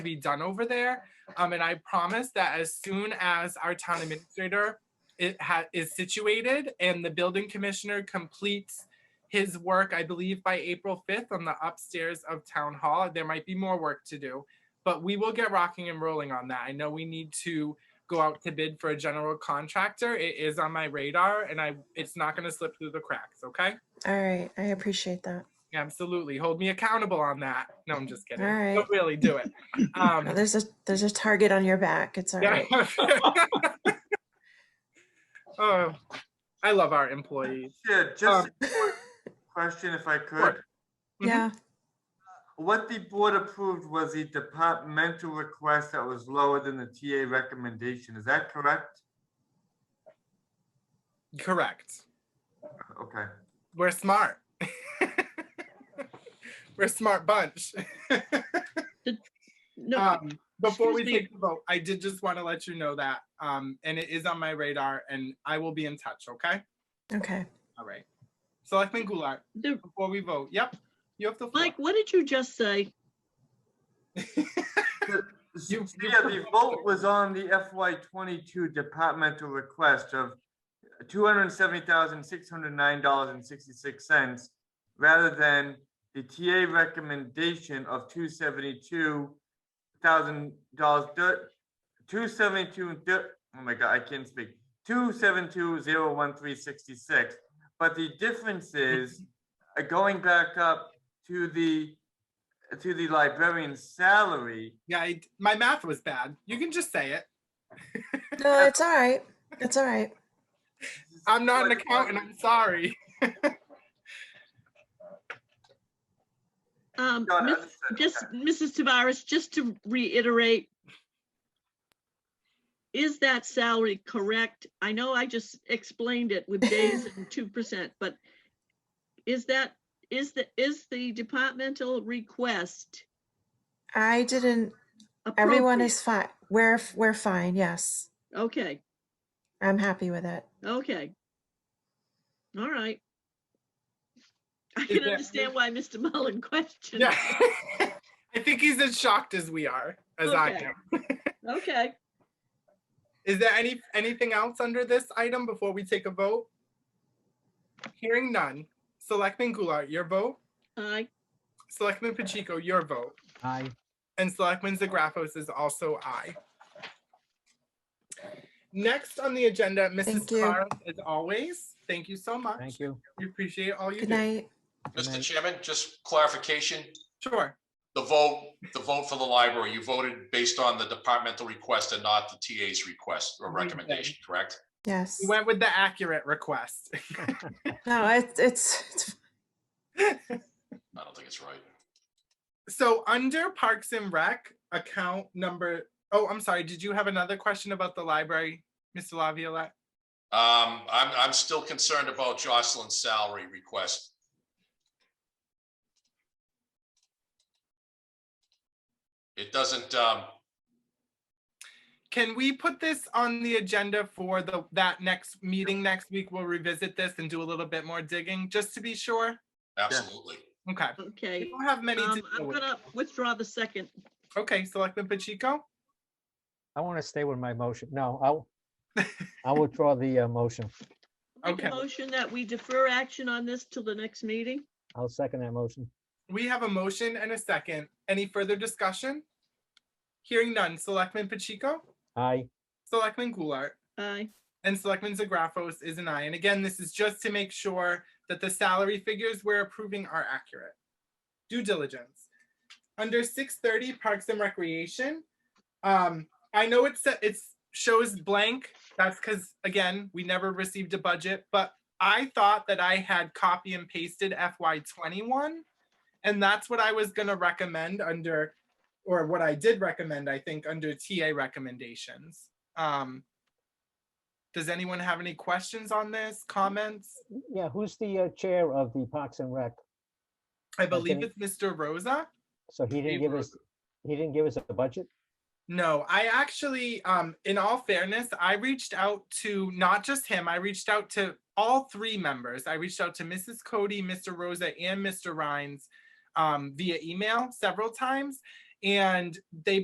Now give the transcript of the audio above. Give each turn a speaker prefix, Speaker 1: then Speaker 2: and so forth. Speaker 1: to be done over there. Um, and I promise that as soon as our town administrator it ha- is situated and the building commissioner completes his work, I believe by April 5th on the upstairs of town hall, there might be more work to do, but we will get rocking and rolling on that. I know we need to go out to bid for a general contractor. It is on my radar and I, it's not going to slip through the cracks. Okay.
Speaker 2: All right, I appreciate that.
Speaker 1: Absolutely. Hold me accountable on that. No, I'm just kidding.
Speaker 2: All right.
Speaker 1: Don't really do it. Um,
Speaker 2: Oh, There's a there's a target on your back. It's all right.
Speaker 1: Yeah. oh, I love our employees.
Speaker 3: Yeah, just a quick question if I could.
Speaker 1: Mhm.
Speaker 2: Yeah.
Speaker 3: What the board approved was the departmental request that was lower than the TA recommendation. Is that correct?
Speaker 1: Correct.
Speaker 3: Okay.
Speaker 1: We're smart. We're a smart bunch.
Speaker 4: No,
Speaker 1: Um, before we
Speaker 4: Excuse me.
Speaker 1: take the vote, I did just want to let you know that, um, and it is on my radar, and I will be in touch. Okay.
Speaker 2: Okay.
Speaker 1: All right. Selectman Goulart,
Speaker 4: the-
Speaker 1: before we vote, yep, you have the floor.
Speaker 4: Mike, what did you just say?
Speaker 1: You- you
Speaker 3: Yeah, the vote was on the FY twenty-two departmental request of two hundred and seventy thousand, six hundred and nine dollars and sixty-six cents rather than the TA recommendation of two seventy-two thousand dollars, two seventy-two, and thir- oh my God, I can't speak, two seven two zero one three sixty-six. But the difference is uh, going back up to the, to the librarian's salary,
Speaker 1: Yeah, I, my math was bad. You can just say it.
Speaker 2: No, it's all right. It's all right.
Speaker 1: I'm not an accountant. I'm sorry.
Speaker 4: Um,
Speaker 3: No, no,
Speaker 4: Miss-
Speaker 3: understood, okay.
Speaker 4: just, Mrs. Tavares, just to reiterate, is that salary correct? I know I just explained it with days and two percent, but is that, is the, is the departmental request
Speaker 2: I didn't. Everyone is fine. We're f- we're fine. Yes,
Speaker 4: appropriate? Okay,
Speaker 2: I'm happy with it.
Speaker 4: okay. All right. I
Speaker 1: Is
Speaker 4: can
Speaker 1: there-
Speaker 4: understand why Mr. Mullen questioned.
Speaker 1: Yeah. I think he's as shocked as we are, as I
Speaker 4: Okay.
Speaker 1: am.
Speaker 4: Okay,
Speaker 1: Is there any, anything else under this item before we take a vote? Hearing none. Selectman Goulart, your vote.
Speaker 4: aye.
Speaker 1: Selectman Pacheco, your vote.
Speaker 5: Aye.
Speaker 1: And Selectman Zagrafos is also aye. Next on the agenda, Mrs.
Speaker 2: Thank you.
Speaker 1: Tavares, as always, thank you so much.
Speaker 5: Thank you.
Speaker 1: We appreciate all you
Speaker 2: Good
Speaker 1: do.
Speaker 2: night.
Speaker 5: Good
Speaker 6: Mr.
Speaker 5: night.
Speaker 6: Chairman, just clarification,
Speaker 1: Sure.
Speaker 6: the vote, the vote for the library, you voted based on the departmental request and not the TA's request or
Speaker 1: Right.
Speaker 6: recommendation, correct?
Speaker 2: Yes.
Speaker 1: We went with the accurate request.
Speaker 2: No, it's it's, it's
Speaker 6: I don't think it's right.
Speaker 1: So under Parks and Rec account number, oh, I'm sorry, did you have another question about the library, Mr. Laviolette?
Speaker 6: Um, I'm, I'm still concerned about Jocelyn's salary request. It doesn't, um,
Speaker 1: Can we put this on the agenda for the, that next meeting next week? We'll revisit this and do a little bit more digging, just to be sure.
Speaker 6: absolutely.
Speaker 1: Okay,
Speaker 4: Okay.
Speaker 1: we don't have many to
Speaker 4: Um,
Speaker 1: deal
Speaker 4: I'm
Speaker 1: with.
Speaker 4: gonna withdraw the second.
Speaker 1: Okay, Selectman Pacheco?
Speaker 5: I want to stay with my motion. No, I'll, I will draw the uh, motion.
Speaker 4: Make
Speaker 1: Okay.
Speaker 4: a motion that we defer action on this till the next meeting.
Speaker 5: I'll second that motion.
Speaker 1: We have a motion and a second. Any further discussion? Hearing none, Selectman Pacheco,
Speaker 5: Aye.
Speaker 1: Selectman Goulart.
Speaker 4: Aye.
Speaker 1: And Selectman Zagrafos is an aye. And again, this is just to make sure that the salary figures we're approving are accurate. Due diligence. Under six thirty Parks and Recreation, um, I know it's, it's, shows blank. That's because, again, we never received a budget, but I thought that I had copy and pasted FY twenty-one. And that's what I was gonna recommend under, or what I did recommend, I think, under TA recommendations. Um, does anyone have any questions on this, comments?
Speaker 5: Yeah, who's the uh, chair of the Parks and Rec?
Speaker 1: I believe
Speaker 5: any-
Speaker 1: it's Mr. Rosa.
Speaker 5: So he
Speaker 1: Dave
Speaker 5: didn't give us, he didn't give us a budget?
Speaker 1: No, I actually, um, in all fairness, I reached out to not just him, I reached out to all three members. I reached out to Mrs. Cody, Mr. Rosa, and Mr. Rhines um, via email several times. And they